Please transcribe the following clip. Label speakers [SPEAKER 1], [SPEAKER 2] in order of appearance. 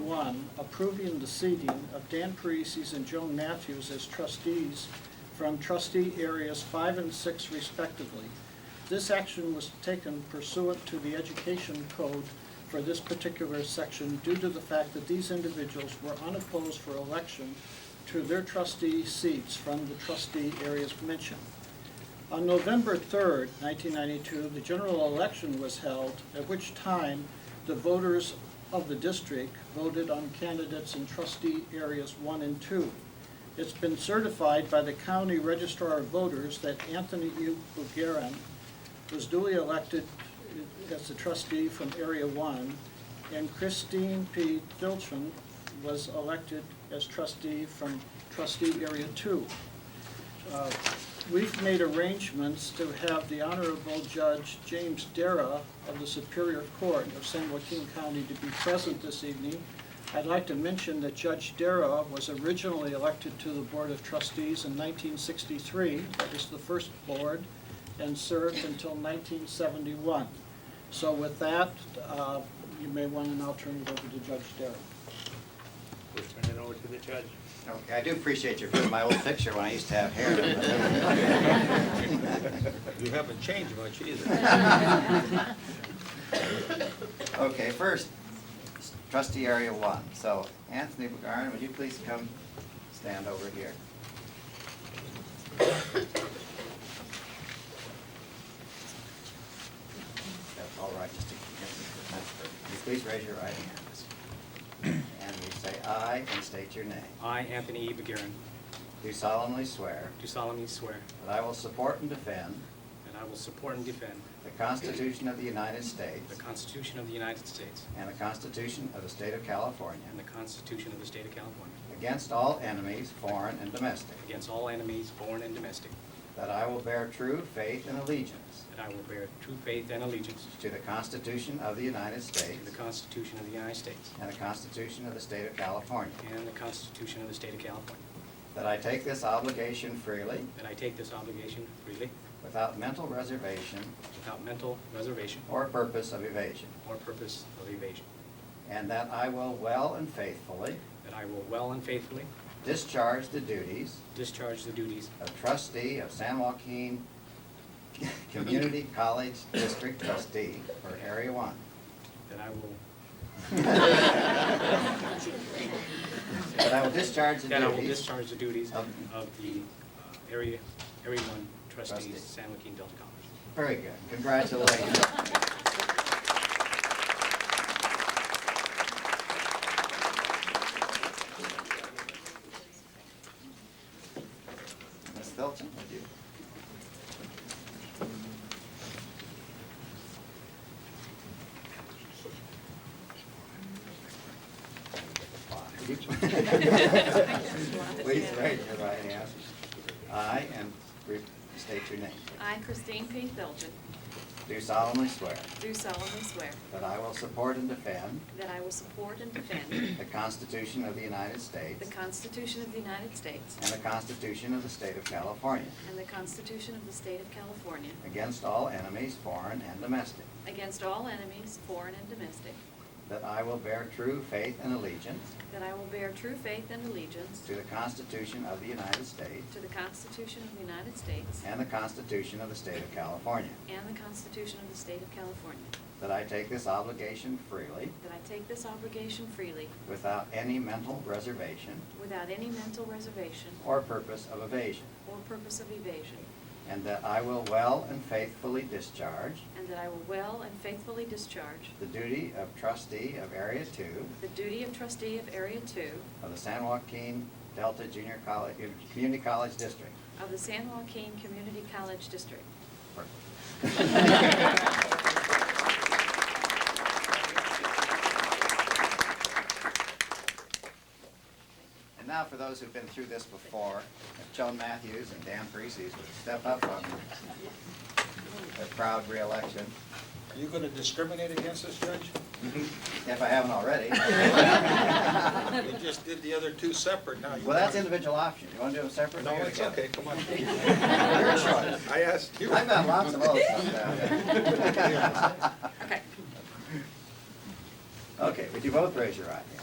[SPEAKER 1] 21, approving the seating of Dan Parisis and Joan Matthews as trustees from trustee areas five and six respectively. This action was taken pursuant to the Education Code for this particular section due to the fact that these individuals were unopposed for election to their trustee seats from the trustee areas mentioned. On November 3rd, 1992, the general election was held, at which time the voters of the district voted on candidates in trustee areas one and two. It's been certified by the county registrar of voters that Anthony U. Bugarin was duly elected as a trustee from area one, and Christine P. Dilton was elected as trustee from trustee area two. Uh, We've made arrangements to have the Honorable Judge James Dara of the Superior Court of San Joaquin County to be present this evening. I'd like to mention that Judge Dara was originally elected to the Board of Trustees in 1963. That was the first board, and served until 1971. So with that, uh, you may want to now turn it over to Judge Dara.
[SPEAKER 2] We'll turn it over to the judge.
[SPEAKER 3] Okay, I do appreciate you putting my old picture when I used to have hair.
[SPEAKER 2] You haven't changed much either.
[SPEAKER 3] Okay, first, trustee area one. So Anthony Bugarin, would you please come stand over here? That's all right, just to get me the transfer. Would you please raise your right hand? And you say aye and state your name.
[SPEAKER 4] I, Anthony E. Begirin,
[SPEAKER 3] Do solemnly swear
[SPEAKER 4] do solemnly swear
[SPEAKER 3] that I will support and defend
[SPEAKER 4] that I will support and defend
[SPEAKER 3] the Constitution of the United
[SPEAKER 4] the
[SPEAKER 3] States
[SPEAKER 4] Constitution of the United States
[SPEAKER 3] and the Constitution of the State of California
[SPEAKER 4] and the Constitution of the State of California
[SPEAKER 3] Against all enemies, foreign and domestic.
[SPEAKER 4] against all enemies, foreign and domestic,
[SPEAKER 3] That I will bear true faith and allegiance
[SPEAKER 4] that I will bear true faith and allegiance
[SPEAKER 3] to the Constitution of the United States
[SPEAKER 4] to the Constitution of the United States
[SPEAKER 3] and the Constitution of the State of California.
[SPEAKER 4] and the Constitution of the State of California,
[SPEAKER 3] That I take this obligation freely,
[SPEAKER 4] that I take this obligation freely
[SPEAKER 3] without mental reservation
[SPEAKER 4] without mental reservation
[SPEAKER 3] or purpose of evasion.
[SPEAKER 4] or purpose of evasion,
[SPEAKER 3] And that I will well and faithfully
[SPEAKER 4] that I will well and faithfully
[SPEAKER 3] discharge the duties
[SPEAKER 4] discharge the duties
[SPEAKER 3] of trustee of San Joaquin Community College District Trustee for Area One.
[SPEAKER 4] that I will,
[SPEAKER 3] That I will discharge the
[SPEAKER 4] that I will
[SPEAKER 3] duties
[SPEAKER 4] discharge the duties of
[SPEAKER 3] Of-
[SPEAKER 4] the uh, area, area one trustee,
[SPEAKER 3] Trustee.
[SPEAKER 4] San Joaquin Delta College.
[SPEAKER 3] Very good, congratulations. Ms. Felton, would you? Would you- Please raise your right hand. I, and re- state your name.
[SPEAKER 5] I, Christine P. Filton,
[SPEAKER 3] Do solemnly swear
[SPEAKER 5] do solemnly swear
[SPEAKER 3] that I will support and defend
[SPEAKER 5] that I will support and defend
[SPEAKER 3] the Constitution of the United States
[SPEAKER 5] the Constitution of the United States
[SPEAKER 3] and the Constitution of the State of California
[SPEAKER 5] and the Constitution of the State of California
[SPEAKER 3] against all enemies, foreign and domestic,
[SPEAKER 5] against all enemies, foreign and domestic,
[SPEAKER 3] that I will bear true faith and allegiance
[SPEAKER 5] that I will bear true faith and allegiance
[SPEAKER 3] to the Constitution of the United States
[SPEAKER 5] to the Constitution of the United States
[SPEAKER 3] and the Constitution of the State of California,
[SPEAKER 5] and the Constitution of the State of California,
[SPEAKER 3] that I take this obligation freely
[SPEAKER 5] that I take this obligation freely
[SPEAKER 3] without any mental reservation
[SPEAKER 5] without any mental reservation
[SPEAKER 3] or purpose of evasion,
[SPEAKER 5] or purpose of evasion,
[SPEAKER 3] and that I will well and faithfully discharge
[SPEAKER 5] and that I will well and faithfully discharge
[SPEAKER 3] the duty of trustee of Area 2
[SPEAKER 5] the duty of trustee of Area Two
[SPEAKER 3] of the San Joaquin Delta Junior College, uh, Community College District.
[SPEAKER 5] of the San Joaquin Community College District.
[SPEAKER 3] And now for those who've been through this before, if Joan Matthews and Dan Parisis would step up on their proud reelection,
[SPEAKER 2] Are you gonna discriminate against this judge?
[SPEAKER 3] if I haven't already.
[SPEAKER 2] You just did the other two separate, now you.
[SPEAKER 3] Well, that's individual option. You want to do them separately?
[SPEAKER 2] No,
[SPEAKER 3] or
[SPEAKER 2] it's
[SPEAKER 3] together?
[SPEAKER 2] okay, come on.
[SPEAKER 3] Your choice.
[SPEAKER 2] I asked you.
[SPEAKER 3] I've got lots of those sometimes.
[SPEAKER 5] Okay.
[SPEAKER 3] Okay, would you both raise your right hand?